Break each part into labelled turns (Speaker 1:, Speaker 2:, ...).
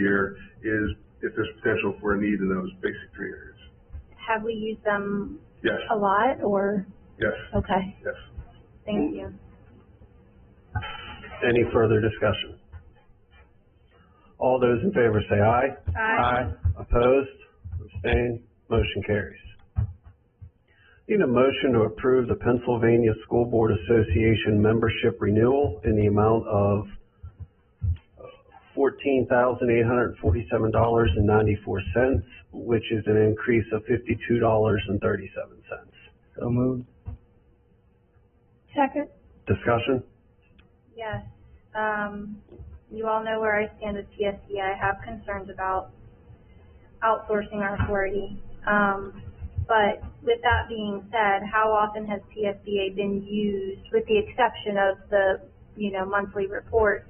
Speaker 1: year is if there's potential for a need in those basic three areas.
Speaker 2: Have we used them
Speaker 1: Yes,
Speaker 2: a lot or,
Speaker 1: yes,
Speaker 2: okay,
Speaker 1: yes.
Speaker 2: thank you.
Speaker 3: Any further discussion? All those in favor say aye. Aye. Opposed, abstained, motion carries. Need a motion to approve the Pennsylvania School Board Association membership renewal in the amount of fourteen thousand eight hundred and forty-seven dollars and ninety-four cents, which is an increase of fifty-two dollars and thirty-seven cents.
Speaker 4: So moved.
Speaker 2: Second.
Speaker 3: Discussion?
Speaker 2: Yes, um, you all know where I stand with PSC. I have concerns about outsourcing our authority. Um, but with that being said, how often has PSBA been used, with the exception of the, you know, monthly reports?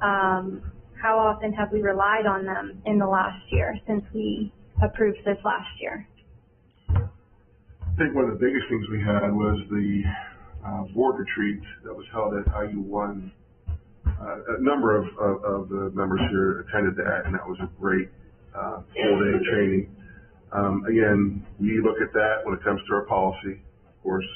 Speaker 2: Um, how often have we relied on them in the last year since we approved this last year?
Speaker 1: I think one of the biggest things we had was the, uh, board retreat that was held at IU one. Uh, a number of, of, of the members here attended that, and that was a great, uh, full-day training. Um, again, we look at that when it comes to our policy, of course.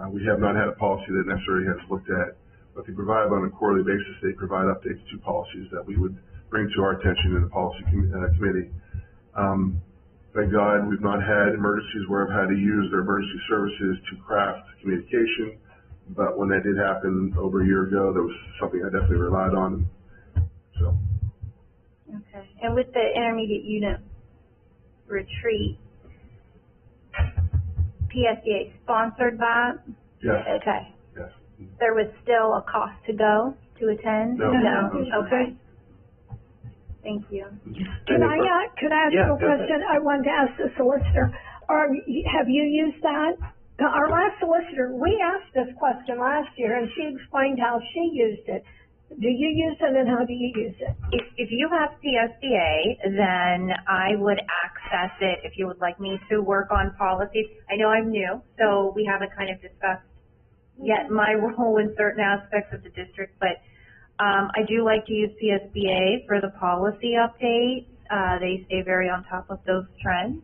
Speaker 1: Uh, we have not had a policy that necessarily has looked at, but they provide on a quarterly basis, they provide updates to policies that we would bring to our attention in the policy com- uh, committee. Um, Thank God, we've not had emergencies where I've had to use their emergency services to craft communication. But when that did happen over a year ago, that was something I definitely relied on. So,
Speaker 2: Okay, and with the intermediate unit retreat, PSDA sponsored by,
Speaker 1: yes,
Speaker 2: okay,
Speaker 1: yes.
Speaker 2: there was still a cost to go to attend?
Speaker 1: No.
Speaker 2: okay. Thank you.
Speaker 3: Any
Speaker 5: Can I,
Speaker 3: fur-
Speaker 5: uh, could I ask
Speaker 3: Yeah,
Speaker 5: you
Speaker 3: go
Speaker 5: a
Speaker 3: ahead.
Speaker 5: question? I wanted to ask the solicitor, are, you- have you used that? Our last solicitor, we asked this question last year and she explained how she used it. Do you use it and how do you use it?
Speaker 6: If, if you have CSBA, then I would access it if you would like me to work on policies. I know I'm new, so we haven't kind of discussed yet my role in certain aspects of the district, but, um, I do like to use CSBA for the policy updates. Uh, they stay very on top of those trends.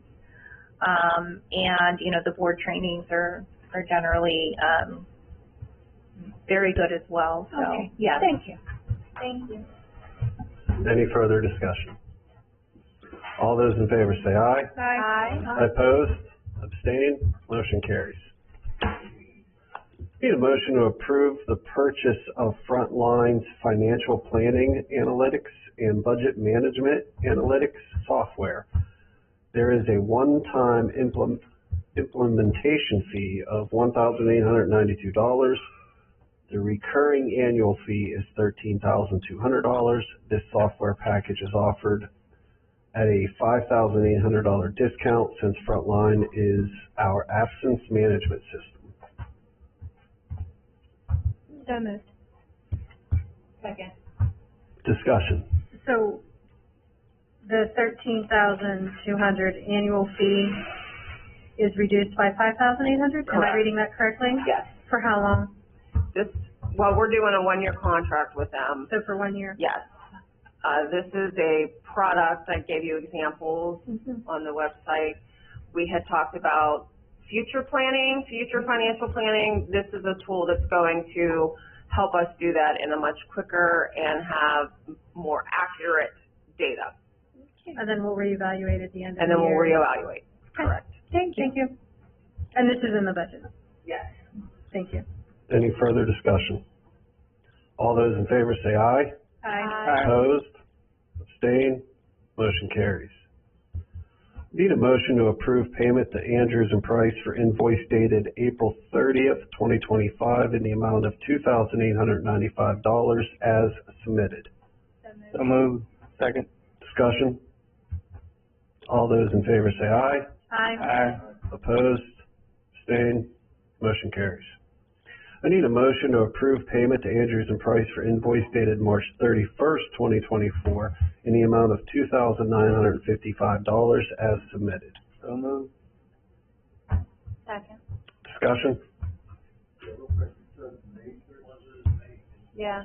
Speaker 6: Um, and, you know, the board trainings are, are generally, um, very good as well, so,
Speaker 5: Okay.
Speaker 6: yeah.
Speaker 5: Thank you.
Speaker 2: Thank you.
Speaker 3: Any further discussion? All those in favor say aye.
Speaker 2: Aye.
Speaker 3: Opposed, abstained, motion carries. Need a motion to approve the purchase of Frontline's financial planning analytics and budget management analytics software. There is a one-time implement, implementation fee of one thousand eight hundred ninety-two dollars. The recurring annual fee is thirteen thousand two hundred dollars. This software package is offered at a five thousand eight hundred dollar discount since Frontline is our absence management system.
Speaker 2: So moved.
Speaker 6: Second.
Speaker 3: Discussion.
Speaker 7: So the thirteen thousand two hundred annual fee is reduced by five thousand eight hundred? Am I
Speaker 8: Correct.
Speaker 7: reading that correctly?
Speaker 8: Yes,
Speaker 7: For how long?
Speaker 8: this, well, we're doing a one-year contract with them.
Speaker 7: So for one year?
Speaker 8: Yes. Uh, this is a product, I gave you examples on the website. We had talked about future planning, future financial planning. This is a tool that's going to help us do that in a much quicker and have more accurate data.
Speaker 7: And then we'll reevaluate at the end of the
Speaker 8: And
Speaker 7: year?
Speaker 8: then we'll reevaluate. Correct.
Speaker 7: Thank you. Thank you. And this is in the budget?
Speaker 8: Yes.
Speaker 7: Thank you.
Speaker 3: Any further discussion? All those in favor say aye.
Speaker 2: Aye.
Speaker 3: Opposed? Abstained? Motion carries. Need a motion to approve payment to Andrews and Price for invoice dated April thirtieth, twenty twenty-five in the amount of two thousand eight hundred ninety-five dollars as submitted.
Speaker 4: So moved. Second.
Speaker 3: Discussion? All those in favor say aye.
Speaker 7: Aye.
Speaker 4: Aye.
Speaker 3: Opposed? Abstained? Motion carries. I need a motion to approve payment to Andrews and Price for invoice dated March thirty-first, twenty twenty-four in the amount of two thousand nine hundred and fifty-five dollars as submitted.
Speaker 4: So moved.
Speaker 2: Second.
Speaker 3: Discussion?
Speaker 2: Yeah.